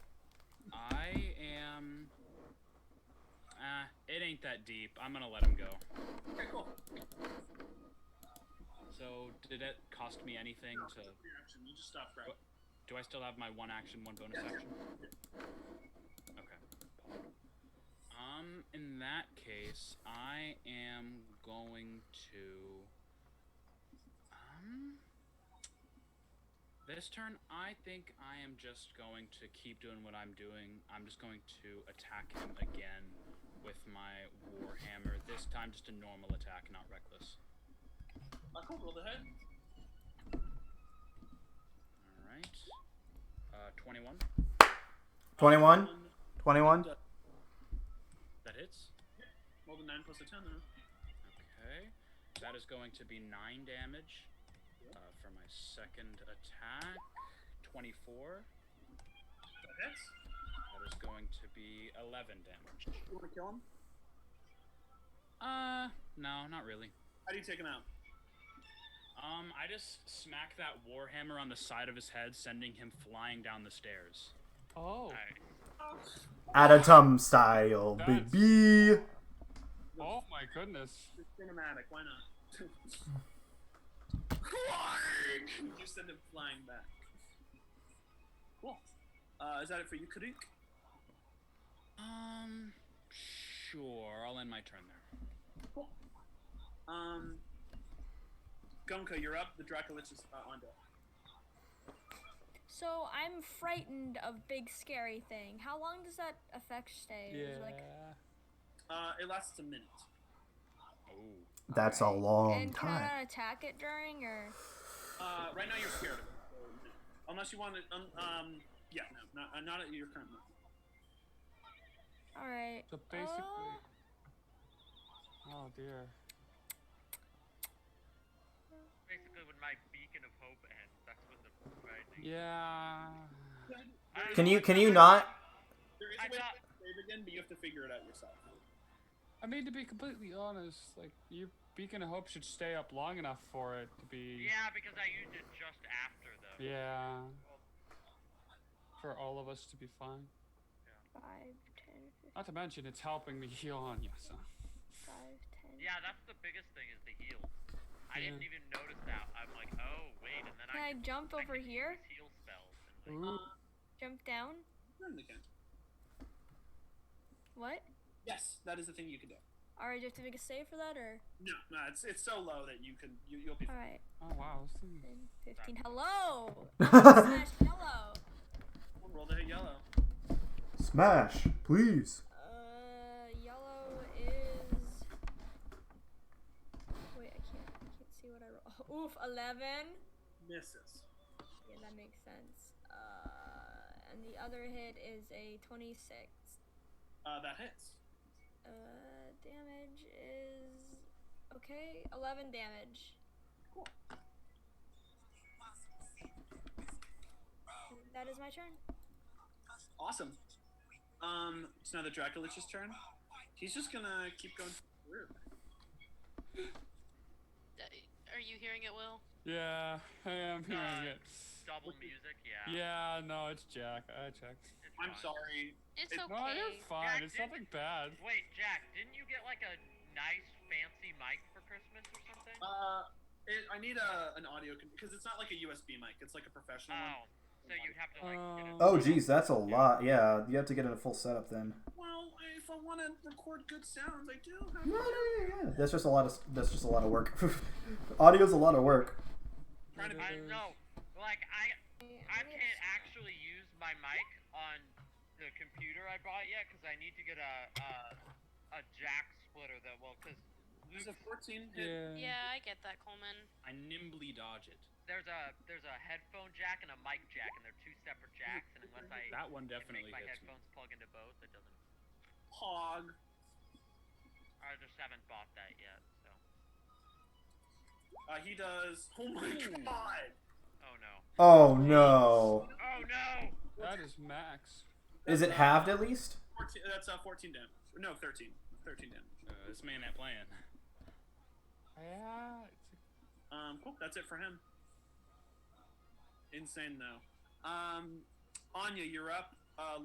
uh, ain't that deep. I'm gonna let him go. Okay, cool. So did it cost me anything No, to? your action. You just stop grabbing. Do I still have my one action, one bonus action? Okay. Um, in that case, I am going to. Um. This turn, I think I am just going to keep doing what I'm doing. I'm just going to attack him again with my warhammer. This time, just a normal attack, not reckless. Uh, cool. Roll the head. All right. Uh, twenty-one. 21? 21? That hits. Roll the nine plus a ten. Then. Okay. That is going to be 9 damage uh, for my second attack. 24. That hits. That is going to be 11 damage. You want to kill him? Uh, no, not really. How do you take him out? Um, I just smack that warhammer on the side of his head, sending him flying down the stairs. Oh. I- Adatum style, That's- baby. Oh my goodness. It's cinematic. Why not? you send him flying back. Cool. Uh, is that it for you, Karik? um, sure. I'll end my turn there. Cool. Um, Gunka, you're up. The Dracolich is uh, on deck. So I'm frightened of big scary thing. How long does that effect stay? Is it like- Uh, it lasts a minute. Oh. That's a long and can I time. not attack it during or? Uh, right now you're scared of it. so no. Unless you want to, um, um, yeah, no, not, uh, not at your current moment. All right. So basically. Uh, Oh dear. Basically, when my beacon of hope ends, that's when the rising. Yeah. I- Can you can you not? There is I a way thought- to save again, but you have to figure it out yourself. I mean, to be completely honest, like your beacon of hope should stay up long enough for it to be. Yeah, because I used it just after though. Yeah. For all of us to be fine. Five, ten, fifteen, Not to mention, it's helping me heal on you, so. five, ten. Yeah, that's the biggest thing is the heal. I didn't Yeah. even notice that. I'm like, oh wait, and then Can I I jump over can here? use Heal spells. And like, Ooh. Jump down? Turn again. What? Yes, that is the thing you can do. All right, do you have to make a save for that or? No, no, it's it's so low that you can you you'll be. All fine. right, Oh wow. This thing... 10, 15. Hello. Slash hello. Roll the hit yellow. Smash, please. Uh, yellow is. Wait, I can't. I can't see what I roll. Oof, eleven. Misses. Yeah, that makes sense. Uh, and the other hit is a twenty-six. Uh, that hits. Uh, damage is okay. Eleven damage. Cool. And That is my turn. Awesome. Um, it's now the Dracolich's turn. He's just gonna keep going. Weird. Uh, Are you hearing it, Will? Yeah, I am hearing Uh, it. Double music, yeah. Yeah, no, it's Jack. I checked. it's I'm fine. sorry. It's It- okay. No, you're fine. It's nothing bad. Wait, Jack, didn't you get like a nice fancy mic for Christmas or something? Uh, it, I need a an audio because it's not like a USB mic. It's like a professional one. oh, so you'd have to like. get a- Um, Oh, geez, that's a lot. Yeah, you have to get in a full setup then. Well, if I want to record good sounds, I do have. No, no, yeah, yeah. That's just a lot of that's just a lot of work. Audio's a lot of work. Trying to I know. Like I, I can't actually use my mic on the computer I bought yet because I need to get a a, a jack splitter that will because There's a 14 hit. Yeah. Yeah, I get that, Coleman. I nimbly dodge it. there's a there's a headphone jack and a mic jack and they're two separate jacks and unless I That one can definitely make my hits me. headphones plug into both, it doesn't. Hog. I just haven't bought that yet. So Uh, he does. Oh my Ooh. god. oh no. Oh no. Oh no. That is max. Is it halved at least? 14, that's uh, 14 damage. No, 13. 13 damage. Uh, this man ain't playing. Yeah. It's Um, cool. That's it for him. Insane though. Um, Anya, you're up. Uh,